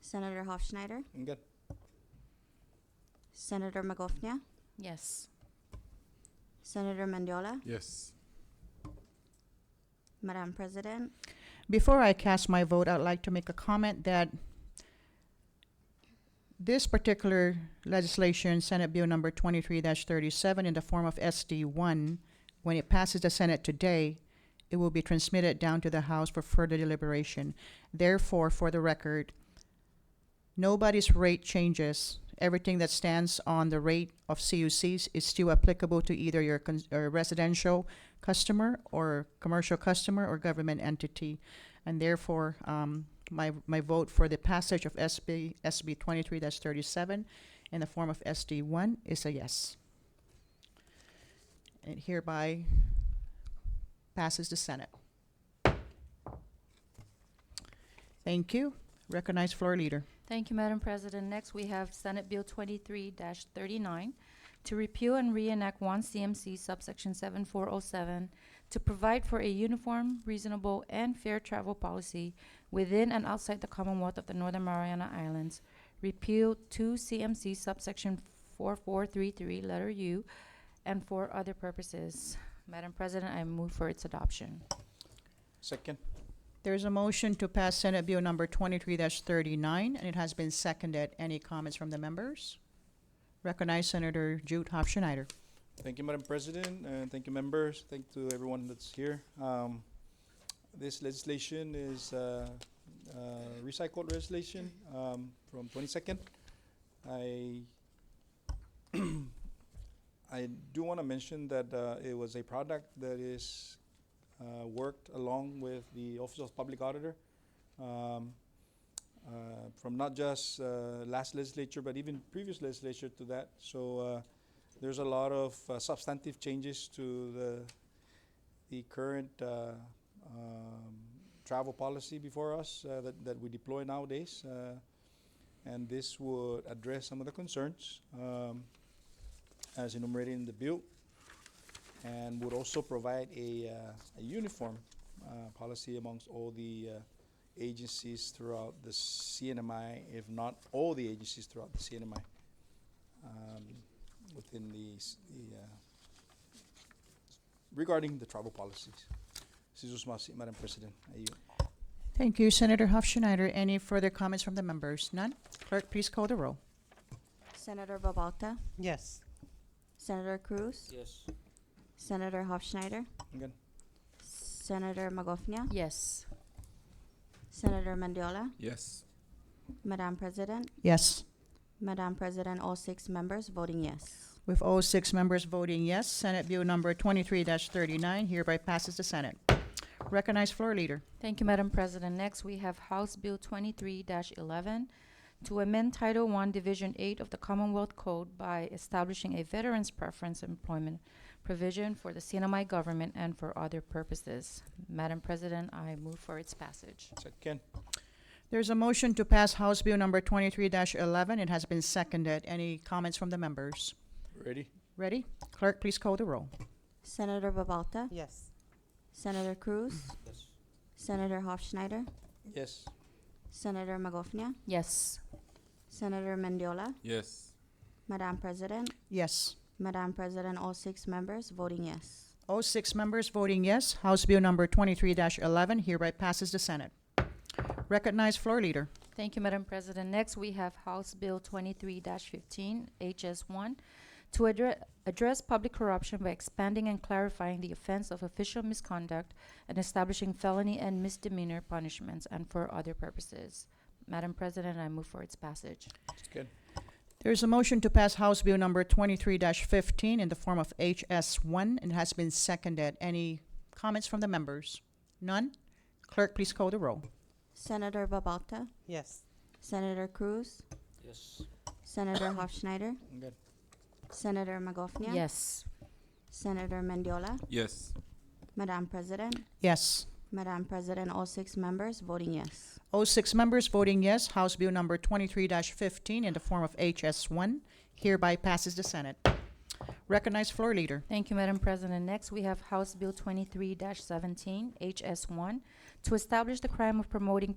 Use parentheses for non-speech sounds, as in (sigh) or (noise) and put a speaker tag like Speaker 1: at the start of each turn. Speaker 1: Senator Hofschneider,
Speaker 2: I'm good.
Speaker 1: Senator Magofnia,
Speaker 3: Yes.
Speaker 1: Senator Mendiola,
Speaker 2: Yes.
Speaker 1: Madam President,
Speaker 4: Before I cast my vote, I'd like to make a comment that this particular legislation, Senate Bill number twenty-three thirty-seven, in the form of SD one, when it passes the Senate today, it will be transmitted down to the House for further deliberation. Therefore, for the record, nobody's rate changes. Everything that stands on the rate of CUCs is still applicable to either your cons- or residential customer or commercial customer or government entity. And therefore, um, my, my vote for the passage of SB, SB twenty-three thirty-seven in the form of SD one is a yes. And it hereby passes the Senate. Thank you. Recognize floor leader.
Speaker 3: Thank you, Madam President. Next, we have Senate Bill twenty-three thirty-nine to repeal and reenact one CMC subsection seven four oh seven to provide for a uniform, reasonable, and fair travel policy within and outside the Commonwealth of the Northern Mariana Islands. Repeal two CMC subsection four four three three, letter U, and for other purposes. Madam President, I move for its adoption.
Speaker 2: Second.
Speaker 4: There is a motion to pass Senate Bill number twenty-three thirty-nine, and it has been seconded. Any comments from the members? Recognize Senator Jude Hofschneider.
Speaker 2: Thank you, Madam President, and thank you, members. Thank to everyone that's here. Um, this legislation is uh, uh, recycled legislation um, from 22nd. I (clears throat) I do want to mention that uh, it was a product that is uh, worked along with the Office of Public Auditor um, uh, from not just uh, last legislature but even previous legislature to that. So. Uh, there's a lot of uh, substantive changes to the the current uh, um, travel policy before us uh, that, that we deploy nowadays, uh, and this would address some of the concerns um, as enumerated in the bill, and would also provide a, uh, a uniform uh, policy amongst all the uh, agencies throughout the CNMI, if not all the agencies throughout the CNMI. Um, within the, s- the uh, regarding the travel policies. This is Usmasi, Madam President. I yield.
Speaker 4: Thank you, Senator Hofschneider. Any further comments from the members? None? Clerk, please call the roll.
Speaker 1: Senator Babalta,
Speaker 5: Yes.
Speaker 1: Senator Cruz,
Speaker 5: Yes.
Speaker 1: Senator Hofschneider,
Speaker 2: Again,
Speaker 1: Senator Magofnia,
Speaker 3: Yes.
Speaker 1: Senator Mendiola,
Speaker 6: Yes.
Speaker 1: Madam President,
Speaker 4: Yes.
Speaker 1: Madam President, all six members voting yes.
Speaker 4: With all six members voting yes, Senate Bill number twenty-three thirty-nine hereby passes the Senate. Recognize floor leader.
Speaker 3: Thank you, Madam President. Next, we have House Bill twenty-three eleven to amend Title One, Division Eight of the Commonwealth Code by establishing a Veterans Preference Employment provision for the CNMI government and for other purposes. Madam President, I move for its passage.
Speaker 2: second.
Speaker 4: There's a motion to pass House Bill number twenty-three eleven. It has been seconded. Any comments from the members?
Speaker 2: Ready?
Speaker 4: Ready? Clerk, please call the roll.
Speaker 1: Senator Babalta,
Speaker 5: Yes.
Speaker 1: Senator Cruz,
Speaker 5: Yes.
Speaker 1: Senator Hofschneider,
Speaker 2: Yes.
Speaker 1: Senator Magofnia,
Speaker 3: Yes.
Speaker 1: Senator Mendiola,
Speaker 6: Yes.
Speaker 1: Madam President,
Speaker 4: Yes.
Speaker 1: Madam President, all six members voting yes.
Speaker 4: All six members voting yes, House Bill number twenty-three eleven hereby passes the Senate. Recognize floor leader.
Speaker 3: Thank you, Madam President. Next, we have House Bill twenty-three fifteen, HS one, to address, address public corruption by expanding and clarifying the offense of official misconduct and establishing felony and misdemeanor punishments and for other purposes. Madam President, I move for its passage.
Speaker 2: Second.
Speaker 4: There is a motion to pass House Bill number twenty-three fifteen in the form of HS one and has been seconded. Any comments from the members? None? Clerk, please call the roll.
Speaker 1: Senator Babalta,
Speaker 5: Yes.
Speaker 1: Senator Cruz,
Speaker 5: Yes.
Speaker 1: Senator Hofschneider,
Speaker 2: Again.
Speaker 1: Senator Magofnia,
Speaker 3: Yes.
Speaker 1: Senator Mendiola,
Speaker 6: Yes.
Speaker 1: Madam President,
Speaker 4: Yes.
Speaker 1: Madam President, all six members voting yes.
Speaker 4: All six members voting yes, House Bill number twenty-three fifteen in the form of HS one hereby passes the Senate. Recognize floor leader.
Speaker 3: Thank you, Madam President. Next, we have House Bill twenty-three seventeen, HS one, to establish the crime of promoting